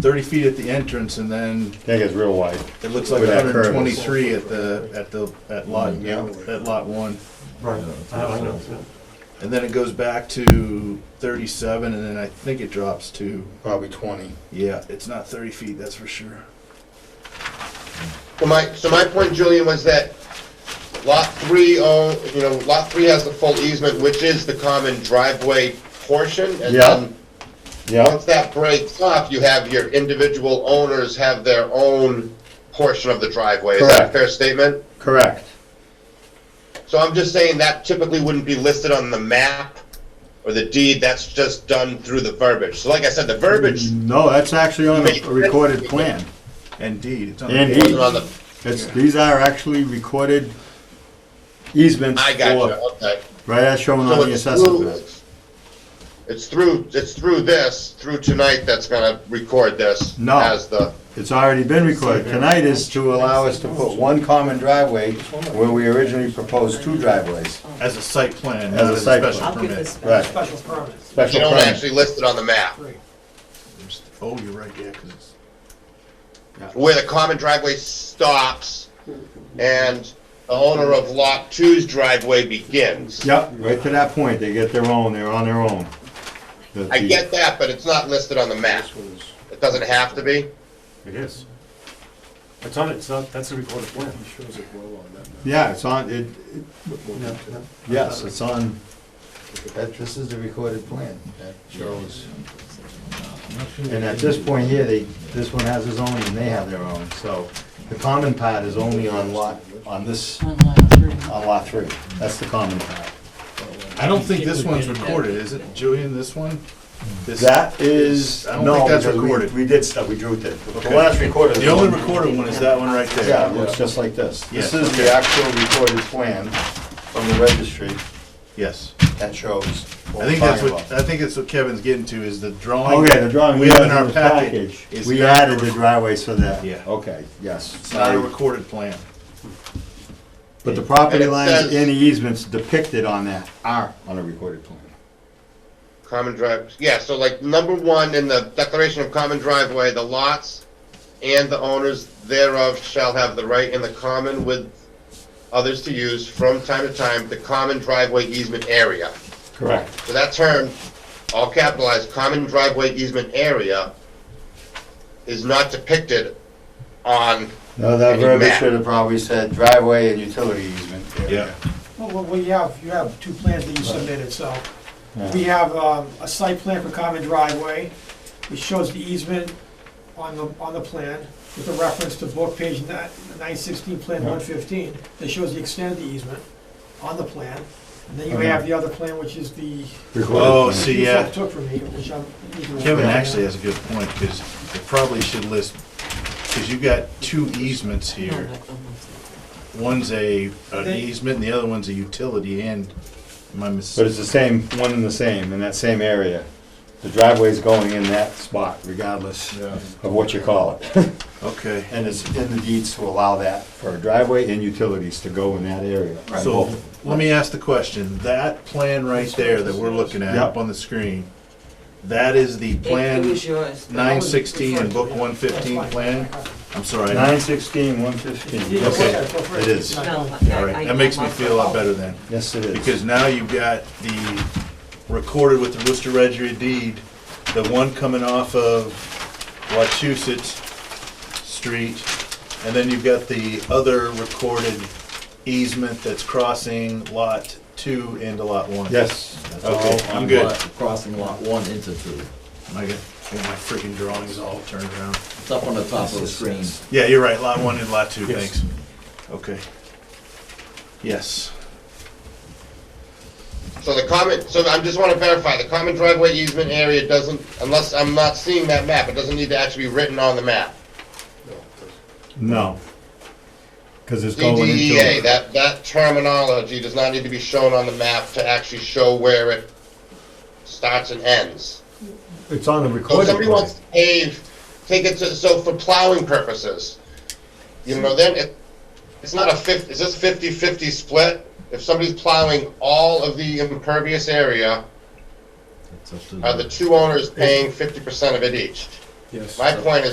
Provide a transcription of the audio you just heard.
thirty feet at the entrance and then That gets real wide. it looks like With that hundred curve. and Mm-hmm. twenty-three at the, at the, at lot, at lot one. Right. I know. And then it goes back to thirty-seven and then I think it drops to, probably twenty. yeah, it's not thirty feet, that's for sure. So my, so my point, Julian, was that lot three, own- you know, lot three has the full easement, which is the common driveway portion. And Yeah. then, Yeah, once that breaks off, you have your individual owners have their own portion of the driveway. Is that a Correct. fair statement? correct. So I'm just saying that typically wouldn't be listed on the map or the deed, that's just done through the verbiage. So like I said, the verbiage No, that's actually on a a recorded plan. Indeed, it's on. Indeed. wasn't on the, It's, these are actually recorded easements I got you, for, okay. right as shown So on the it's assessment through- map. It's through, it's through this, through tonight that's gonna record this No. as the, It's already been recorded. Tonight is to allow us to put one common driveway where we originally proposed two driveways. As a site plan, As a not as a site special plan. I'll give this permit. Right. back. Special permits. you Special don't permit. actually list it on the map. Three. Oh, you're right, yeah, 'cause it's, Where the common driveway stops and the owner of lot two's driveway begins. Yep, right to that point. They get their own, they're on their own. The- I the- get that, but it's not listed on the map. It doesn't have to be. It is. It's on it, it's not, that's a recorded plan. Shows it well on that map. Yeah, it's on, it, it- No, no. yes, it's on, That, this is the recorded plan, that shows, and at this point here, they, this one has his own and they have their own, so the common part is only on lot, on this, On lot three. on lot three. That's the common part. I don't think this one's recorded, is it, Julian, this one? This- That is, I don't no, think that's because we- recorded. we did stuff, we drew it. The Okay. last recorded. The only recorded one is that one right there. Yeah, it looks just like this. This Yeah. is the actual recorded plan from the registry Yes. that shows I what we're think that's talking what, about. I think that's what Kevin's getting to, is the drawing. Okay, Oh, the drawing we have in our package, is we not- added the driveway so that, Yeah. okay, yes. It's not a recorded plan. But the property And it lines says- and the easements depicted on that are on a recorded plan. Common drive, yeah, so like number one in the declaration of common driveway, the lots and the owners thereof shall have the right in the common with others to use from time to time the common driveway easement area. Correct. So that term, all capitalized, common driveway easement area is not depicted on, No, that Any verbiage map. should have probably said driveway and utility easement. area. Yeah. Well, Well, we have, you have two plans that you submitted, so Yeah. we have um, a site plan for common driveway, which shows the easement on the, on the plan with a reference to book page nine sixteen, plan one fifteen, that shows the extent of the easement on the plan. And then you have the other plan, which is the, Recorded Oh, plan. see, you yeah. took from me, which I'm. Kevin actually has a good point, because it probably should list, because you've got two easements here. One's a, an They- easement, and the other one's a utility, and my But mistake. it's the same, one and the same, in that same area. The driveway's going in that spot regardless of what you call it. Okay, And it's in the deeds to allow that for a driveway and utilities to go in that area. so, let me ask the question, that plan right there that we're looking at, up Yep. on the screen, that is the It plan, was yours. but I nine was sixteen and book referring one fifteen plan? I'm sorry, I- Nine sixteen, one fifteen. Okay. It is. to- No, all I- I- right, that makes me feel a lot better then. Yes, it is. Because now you've got the recorded with the Worcester Registry of deed, the one coming off of Wachusett Street, and then you've got the other recorded easement that's crossing lot two into lot one. Yes. that's Okay, all I'm on good. lot, crossing lot one into two. Am I gonna get my freaking drawings all turned around. It's up on the top of the screen. Yeah, you're right, lot one and lot two, Yes. thanks. Okay. Yes, so the common, so I just want to verify, the common driveway easement area doesn't, unless I'm not seeing that map, it doesn't need to actually be written on the map. No. Because it's going into. DDEA, E that, that terminology does not need to be shown on the map to actually show where it starts and ends. It's on the So if recorded Oh, somebody plan. wants to pave, take it to, so for plowing purposes, you know, then it, it's not a fif, is this fifty-fifty split? If somebody's plowing all of the impervious area, It's up to are the two owners paying fifty percent of it each? Yes. My point is